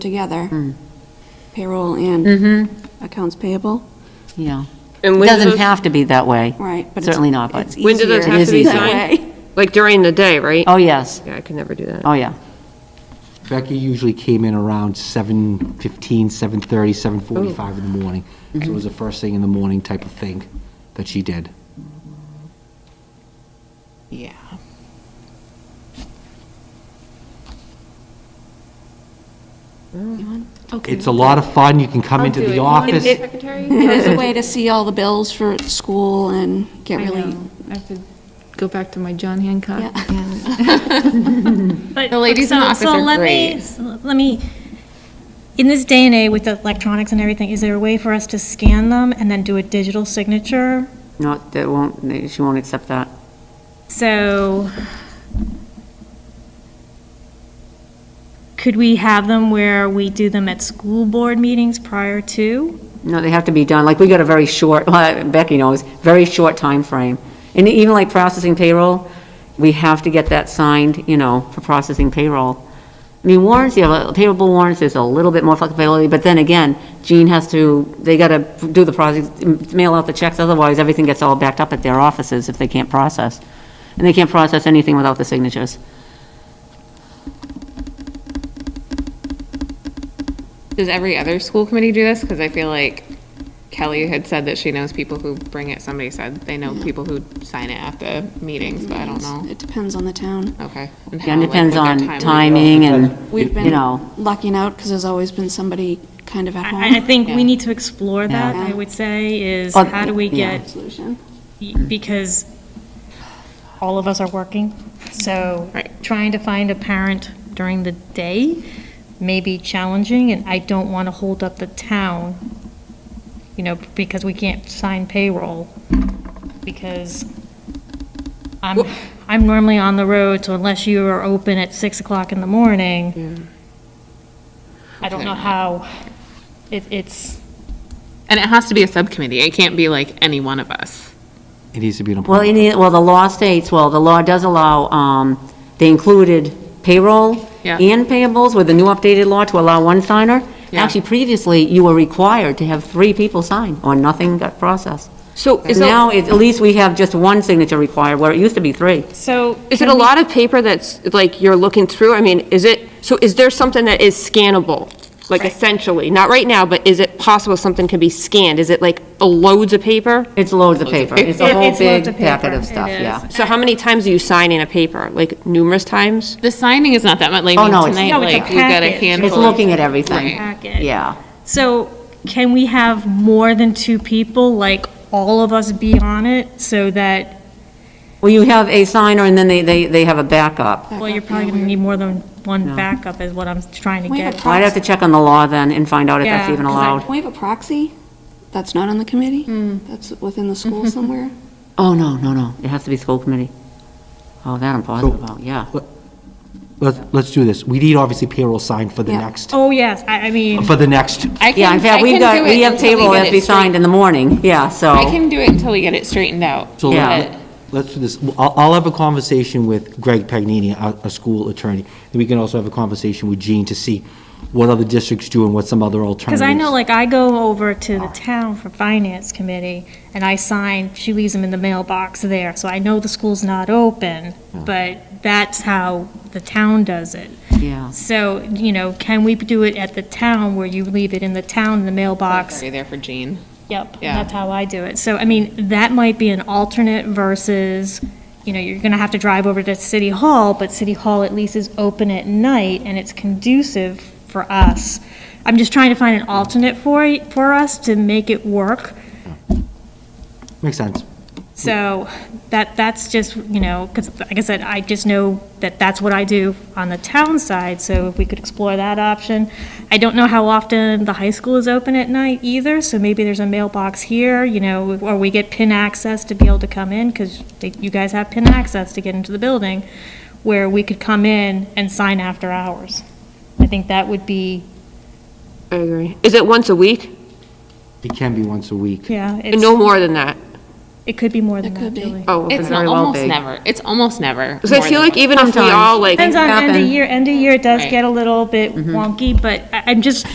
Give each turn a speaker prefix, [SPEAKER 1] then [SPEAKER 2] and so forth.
[SPEAKER 1] together, payroll and accounts payable,
[SPEAKER 2] Yeah.
[SPEAKER 3] And
[SPEAKER 2] It
[SPEAKER 3] when do
[SPEAKER 2] doesn't
[SPEAKER 3] those-
[SPEAKER 2] have to be that way.
[SPEAKER 1] right? but it's-
[SPEAKER 2] Certainly not, but-
[SPEAKER 1] It's
[SPEAKER 3] When do those
[SPEAKER 1] easier
[SPEAKER 2] have to be
[SPEAKER 1] that
[SPEAKER 3] signed?
[SPEAKER 1] way.
[SPEAKER 3] Like during the day, right?
[SPEAKER 2] Oh, yes.
[SPEAKER 3] Yeah, I could never do that.
[SPEAKER 2] Oh, yeah.
[SPEAKER 4] Becky usually came in around 7:15, 7:30, 7:45 in the morning. So it was the first thing in the morning type of thing that she did.
[SPEAKER 5] Yeah.
[SPEAKER 4] It's a lot of fun. You can come into the office.
[SPEAKER 1] It's a way to see all the bills for school and get
[SPEAKER 6] I
[SPEAKER 1] really,
[SPEAKER 6] know. I have to go back to my John Hancock.
[SPEAKER 1] Yeah.
[SPEAKER 6] and-
[SPEAKER 7] But-
[SPEAKER 5] The ladies in the
[SPEAKER 7] so-
[SPEAKER 5] office
[SPEAKER 7] so
[SPEAKER 5] are
[SPEAKER 7] let me-
[SPEAKER 5] great.
[SPEAKER 7] s- Let me, in this day and age with the electronics and everything, is there a way for us to scan them and then do a digital signature?
[SPEAKER 2] Not, that won't, they- she won't accept that.
[SPEAKER 7] So could we have them where we do them at school board meetings prior to?
[SPEAKER 2] No, they have to be done, like, we got a very short, well, Becky knows, very short time frame. And even like processing payroll, we have to get that signed, you know, for processing payroll. I mean, warrants, you have, payable warrants, there's a little bit more flexibility, but then again, Jean has to, they gotta do the process, mail out the checks, otherwise everything gets all backed up at their offices if they can't process. And they can't process anything without the signatures.
[SPEAKER 5] Does every other school committee do this? Because I feel like Kelly had said that she knows people who bring it. Somebody said they know people who sign it at the meetings, but I don't know.
[SPEAKER 1] it depends on the town.
[SPEAKER 5] Okay.
[SPEAKER 2] Again,
[SPEAKER 5] how, like,
[SPEAKER 2] depends
[SPEAKER 5] what their
[SPEAKER 2] on
[SPEAKER 5] timing is.
[SPEAKER 2] timing and,
[SPEAKER 1] We've
[SPEAKER 2] you know.
[SPEAKER 1] been lucking out because there's always been somebody kind of at
[SPEAKER 7] I, I- I
[SPEAKER 1] home.
[SPEAKER 7] think
[SPEAKER 5] Uh-huh. Yeah.
[SPEAKER 7] we need to explore that,
[SPEAKER 1] Yeah.
[SPEAKER 7] I would say, is
[SPEAKER 2] Oh,
[SPEAKER 7] how do we
[SPEAKER 2] yeah.
[SPEAKER 7] get
[SPEAKER 1] Solution.
[SPEAKER 7] because all of us are working, so
[SPEAKER 5] Right.
[SPEAKER 7] trying to find a parent during the day may be challenging, and I don't want to hold up the town, you know, because we can't sign payroll, because I'm, I'm normally on the road, so unless you are open at 6 o'clock in the morning, I don't know how, it, it's,
[SPEAKER 5] And it has to be a subcommittee. It can't be like any one of us.
[SPEAKER 4] It needs to be an
[SPEAKER 2] Well,
[SPEAKER 4] appointment.
[SPEAKER 2] in the, well, the law states, well, the law does allow, um, they included payroll
[SPEAKER 5] Yeah.
[SPEAKER 2] and payables with the new updated law to allow one signer.
[SPEAKER 5] Yeah.
[SPEAKER 2] Actually, previously, you were required to have three people sign, or nothing got processed.
[SPEAKER 3] So is
[SPEAKER 2] Now,
[SPEAKER 3] it,
[SPEAKER 2] it- at least we have just one signature required, where it used to be three.
[SPEAKER 7] so.
[SPEAKER 3] is it a lot of paper that's, like, you're looking through? I mean, is it, so is there something that is scannable? Like essentially, not right now, but is it possible something can be scanned? Is it like a loads of paper?
[SPEAKER 2] It's loads of paper. It's
[SPEAKER 7] It-
[SPEAKER 2] a whole
[SPEAKER 7] it's loads
[SPEAKER 2] big
[SPEAKER 7] of
[SPEAKER 2] packet
[SPEAKER 7] paper.
[SPEAKER 2] of stuff,
[SPEAKER 7] It is.
[SPEAKER 2] yeah.
[SPEAKER 3] So how many times do you sign in a paper? Like numerous times?
[SPEAKER 5] The signing is not that much. Like
[SPEAKER 2] Oh,
[SPEAKER 5] I mean,
[SPEAKER 2] no, it's-
[SPEAKER 5] tonight,
[SPEAKER 7] No, it's a
[SPEAKER 5] like we got a
[SPEAKER 7] package. It's
[SPEAKER 5] handful.
[SPEAKER 2] It's
[SPEAKER 5] of-
[SPEAKER 2] looking at everything,
[SPEAKER 7] Packet.
[SPEAKER 2] yeah.
[SPEAKER 7] So can we have more than two people, like all of us be on it so that,
[SPEAKER 2] Well, you have a signer, and then they, they, they have a backup.
[SPEAKER 7] well, you're probably going to need more than one backup is what I'm trying to
[SPEAKER 1] We have
[SPEAKER 7] get.
[SPEAKER 2] I'd have to check on the law then and find out if that's
[SPEAKER 7] Yeah,
[SPEAKER 2] even
[SPEAKER 7] 'cause I-
[SPEAKER 2] allowed.
[SPEAKER 1] Can we have a proxy? That's not on the committee?
[SPEAKER 7] Hmm.
[SPEAKER 1] That's within the school somewhere?
[SPEAKER 2] Oh, no, no, no, it has to be school committee. Oh, that I'm positive about, yeah.
[SPEAKER 4] Let's, let's do this. We need obviously payroll signed for the
[SPEAKER 1] Yeah.
[SPEAKER 4] next,
[SPEAKER 7] Oh, yes, I, I mean,
[SPEAKER 4] for the next,
[SPEAKER 5] I can,
[SPEAKER 2] Yeah, in fact,
[SPEAKER 5] I
[SPEAKER 2] we've
[SPEAKER 5] can
[SPEAKER 2] got,
[SPEAKER 5] do it
[SPEAKER 2] we have
[SPEAKER 5] until we
[SPEAKER 2] table
[SPEAKER 5] get
[SPEAKER 2] that
[SPEAKER 5] it
[SPEAKER 2] be
[SPEAKER 5] straight-
[SPEAKER 2] signed in the morning, yeah, so.
[SPEAKER 5] I can do it until we get it straightened out.
[SPEAKER 4] so
[SPEAKER 2] Yeah.
[SPEAKER 5] but-
[SPEAKER 4] let's do this. I'll, I'll have a conversation with Greg Pagnini, a, a school attorney. And we can also have a conversation with Jean to see what other districts do and what some other alternatives.
[SPEAKER 7] because I know, like, I go over to the town for finance committee and I sign, she leaves them in the mailbox there. So I know the school's not open, but that's how the town does it.
[SPEAKER 2] Yeah.
[SPEAKER 7] So, you know, can we do it at the town where you leave it in the town, in the mailbox?
[SPEAKER 5] Sorry there for Jean.
[SPEAKER 7] Yep,
[SPEAKER 5] Yeah.
[SPEAKER 7] that's how I do it. So, I mean, that might be an alternate versus, you know, you're gonna have to drive over to City Hall, but City Hall at least is open at night and it's conducive for us. I'm just trying to find an alternate for, y- for us to make it work.
[SPEAKER 4] Makes sense.
[SPEAKER 7] So that, that's just, you know, because like I said, I just know that that's what I do on the town side, so if we could explore that option. I don't know how often the high school is open at night either, so maybe there's a mailbox here, you know, or we get PIN access to be able to come in, because you guys have PIN access to get into the building, where we could come in and sign after hours. I think that would be,
[SPEAKER 3] I agree. Is it once a week?
[SPEAKER 4] It can be once a week.
[SPEAKER 7] yeah, it's,
[SPEAKER 3] No more than that?
[SPEAKER 7] It could be more than
[SPEAKER 1] It
[SPEAKER 7] that,
[SPEAKER 1] could be.
[SPEAKER 7] Julie.
[SPEAKER 2] Oh, it could
[SPEAKER 5] It's
[SPEAKER 2] very well
[SPEAKER 5] almost
[SPEAKER 2] be.
[SPEAKER 5] never, it's almost never.
[SPEAKER 3] Because I
[SPEAKER 5] more
[SPEAKER 3] feel
[SPEAKER 5] than
[SPEAKER 3] like even if we
[SPEAKER 2] Sometimes.
[SPEAKER 3] all like.
[SPEAKER 7] Depends on end of
[SPEAKER 2] happen.
[SPEAKER 7] year, end of year it does
[SPEAKER 5] Right.
[SPEAKER 7] get a little bit wonky, but I- I'm just,